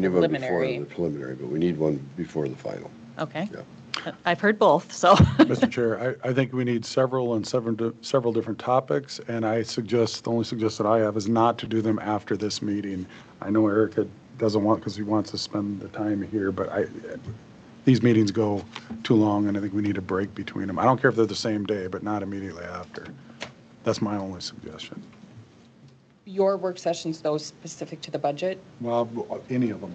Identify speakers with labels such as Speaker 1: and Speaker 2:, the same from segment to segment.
Speaker 1: We need one before
Speaker 2: Preliminary.
Speaker 1: the preliminary, but we need one before the final.
Speaker 2: Okay.
Speaker 1: Yeah.
Speaker 2: Uh, I've heard both, so,
Speaker 3: Mr. Chair, I, I think we need several and several, di- several different topics, and I suggest, the only suggestion I have is not to do them after this meeting. I know Erica doesn't want, because he wants to spend the time here, but I, these meetings go too long, and I think we need a break between them. I don't care if they're the same day, but not immediately after. That's my only suggestion.
Speaker 4: Your work sessions, those specific to the budget?
Speaker 3: Well, any of them.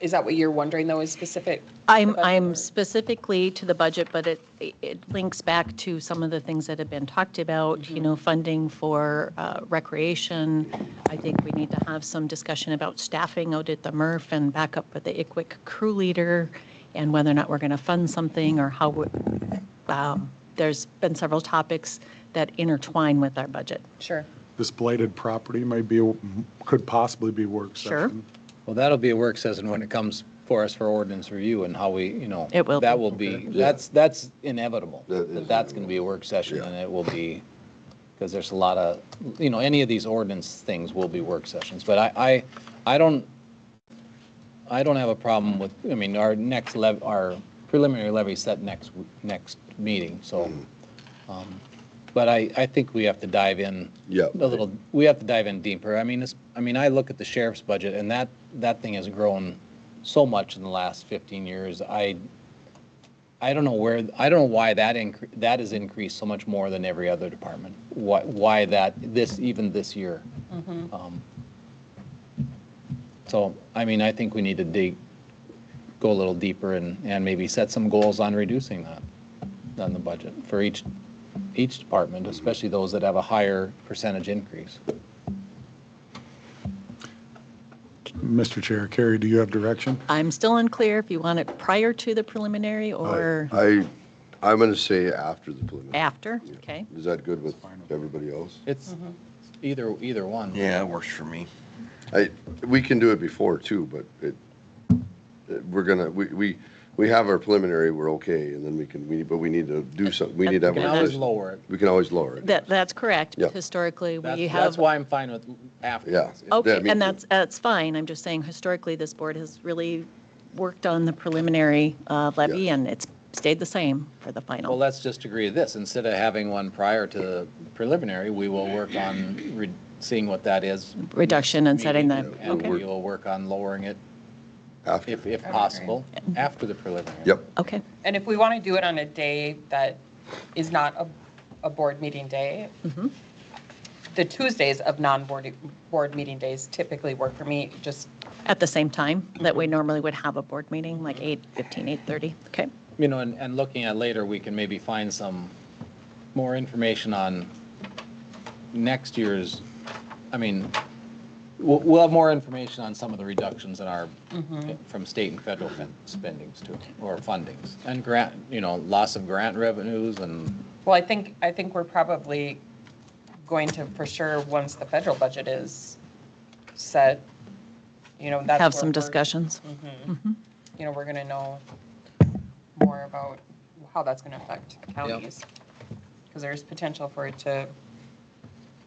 Speaker 4: Is that what you're wondering, though, is specific? to the
Speaker 2: I'm,
Speaker 4: budget
Speaker 2: I'm
Speaker 4: or-
Speaker 2: specifically to the budget, but it, it links back to some of the things that have been talked about, you know, funding for uh, recreation. I think we need to have some discussion about staffing out at the MRF and backup with the ICWIC crew leader and whether or not we're going to fund something or how, we- um, there's been several topics that intertwine with our budget.
Speaker 4: Sure.
Speaker 3: This blighted property may be, a- could possibly be work
Speaker 2: Sure.
Speaker 3: session.
Speaker 5: Well, that'll be a work session when it comes for us for ordinance review and how we, you know.
Speaker 2: It will
Speaker 5: That
Speaker 2: be.
Speaker 5: will be, that's, that's inevitable.
Speaker 1: That is
Speaker 5: That that's going to be a work session
Speaker 1: Yeah.
Speaker 5: and it will be, because there's a lot of, you know, any of these ordinance things will be work sessions. But I, I, I don't, I don't have a problem with, I mean, our next lev, our preliminary levy set next, w- next meeting, so. um, But I, I think we have to dive in.
Speaker 1: Yeah.
Speaker 5: A little, we have to dive in deeper. I mean, it's, I mean, I look at the sheriff's budget and that, that thing has grown so much in the last 15 years. I, I don't know where, I don't know why that incre, that has increased so much more than every other department. Why, why that, this, even this year. Um, So, I mean, I think we need to dig, go a little deeper and, and maybe set some goals on reducing that, on the budget for each, each department, especially those that have a higher percentage increase.
Speaker 3: Mr. Chair, Carrie, do you have direction?
Speaker 2: I'm still unclear if you want it prior to the preliminary or
Speaker 1: I, I'm going to say after the preliminary.
Speaker 2: after, okay?
Speaker 1: Is that good with everybody else?
Speaker 5: It's
Speaker 2: Mm-hmm.
Speaker 5: either, either one.
Speaker 6: Yeah, it works for me.
Speaker 1: I, we can do it before too, but it, it- we're gonna, we, we, we have our preliminary, we're okay, and then we can, we, but we need to do something, we need to have.
Speaker 5: We
Speaker 1: a
Speaker 5: can always
Speaker 1: list.
Speaker 5: lower it.
Speaker 1: We can always lower it.
Speaker 2: That, that's correct.
Speaker 1: Yeah.
Speaker 2: Historically, we
Speaker 5: That's,
Speaker 2: have,
Speaker 5: that's why I'm fine with afterwards.
Speaker 1: Yeah.
Speaker 2: okay,
Speaker 1: me too.
Speaker 2: and that's, that's fine. I'm just saying historically, this board has really worked on the preliminary uh, levy and it's stayed the same for the
Speaker 5: Well,
Speaker 2: final.
Speaker 5: let's just agree to this. Instead of having one prior to the preliminary, we will work on re- seeing what that is.
Speaker 2: Reduction and setting that,
Speaker 5: meeting, And we
Speaker 2: okay,
Speaker 5: will work on lowering it
Speaker 1: After,
Speaker 5: if, if possible, after the preliminary.
Speaker 1: yep,
Speaker 2: okay.
Speaker 4: And if we want to do it on a day that is not a, a board meeting day,
Speaker 2: Mm-hmm.
Speaker 4: the Tuesdays of non-board, board meeting days typically work for me, just,
Speaker 2: At the same time that we normally would have a board meeting, like 8:15, 8:30, okay?
Speaker 5: You know, and, and looking at later, we can maybe find some more information on next year's, I mean, we'll, we'll have more information on some of the reductions in our,
Speaker 2: Mm-hmm.
Speaker 5: from state and federal fin- spendings too, or fundings. And grant, you know, loss of grant revenues and
Speaker 4: well, I think, I think we're probably going to, for sure, once the federal budget is set, you know, that's.
Speaker 2: Have
Speaker 4: where
Speaker 2: some
Speaker 4: we're-
Speaker 2: discussions.
Speaker 4: you know, we're gonna know more about how that's gonna affect counties. Because there's potential for it to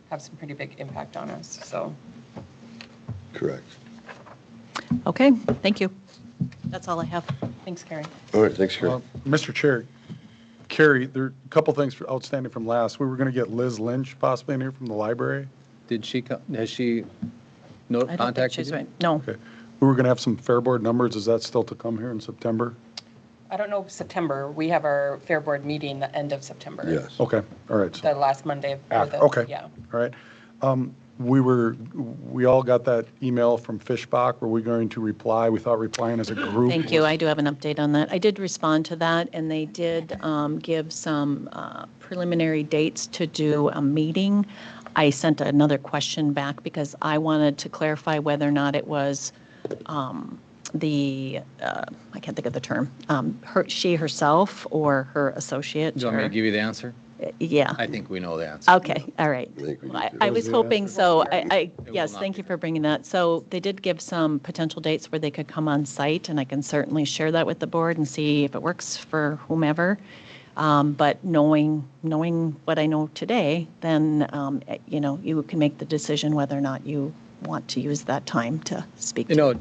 Speaker 4: have some pretty big impact on us, so.
Speaker 1: correct.
Speaker 5: Mm-hmm.
Speaker 2: Okay, thank you. That's all I have.
Speaker 4: Thanks, Carrie.
Speaker 1: All right, thanks, Karen.
Speaker 3: Uh, Mr. Chair, Carrie, there are a couple things outstanding from last. We were going to get Liz Lynch possibly in here from the library.
Speaker 5: did she, co- has she no
Speaker 2: I don't think
Speaker 5: contacted
Speaker 2: she's
Speaker 5: you?
Speaker 2: right. No,
Speaker 3: Okay. We were going to have some Fair Board numbers. Is that still to come here in September?
Speaker 4: I don't know, September, we have our Fair Board meeting the end of September.
Speaker 1: Yes.
Speaker 3: Okay, all right. so-
Speaker 4: The last Monday. of- or
Speaker 3: After,
Speaker 4: the-
Speaker 3: Ah, okay.
Speaker 4: Yeah.
Speaker 3: All right. Um, We were, we all got that email from Fishbach. Were we going to reply? We thought replying as a group.
Speaker 2: Thank you. I do have an update on that. I did respond to that, and they did um, give some uh, preliminary dates to do a meeting. I sent another question back because I wanted to clarify whether or not it was um, the, uh, I can't think of the term, um, her, she herself or her associate.
Speaker 5: Do you want me
Speaker 2: or-
Speaker 5: to give you the answer?
Speaker 2: Yeah.
Speaker 5: I think we know the answer.
Speaker 2: Okay, all right.
Speaker 1: I think we
Speaker 2: Well,
Speaker 1: need
Speaker 2: I
Speaker 1: to-
Speaker 2: I was hoping, so I, I,
Speaker 5: will
Speaker 2: yes,
Speaker 5: not
Speaker 2: thank
Speaker 5: be
Speaker 2: you for bringing that. So they did give some potential dates where they could come on site, and I can certainly share that with the board and see if it works for whomever. Um, But knowing, knowing what I know today, then, um, eh, you know, you can make the decision whether or not you
Speaker 7: want to use that time to speak to.
Speaker 2: You know,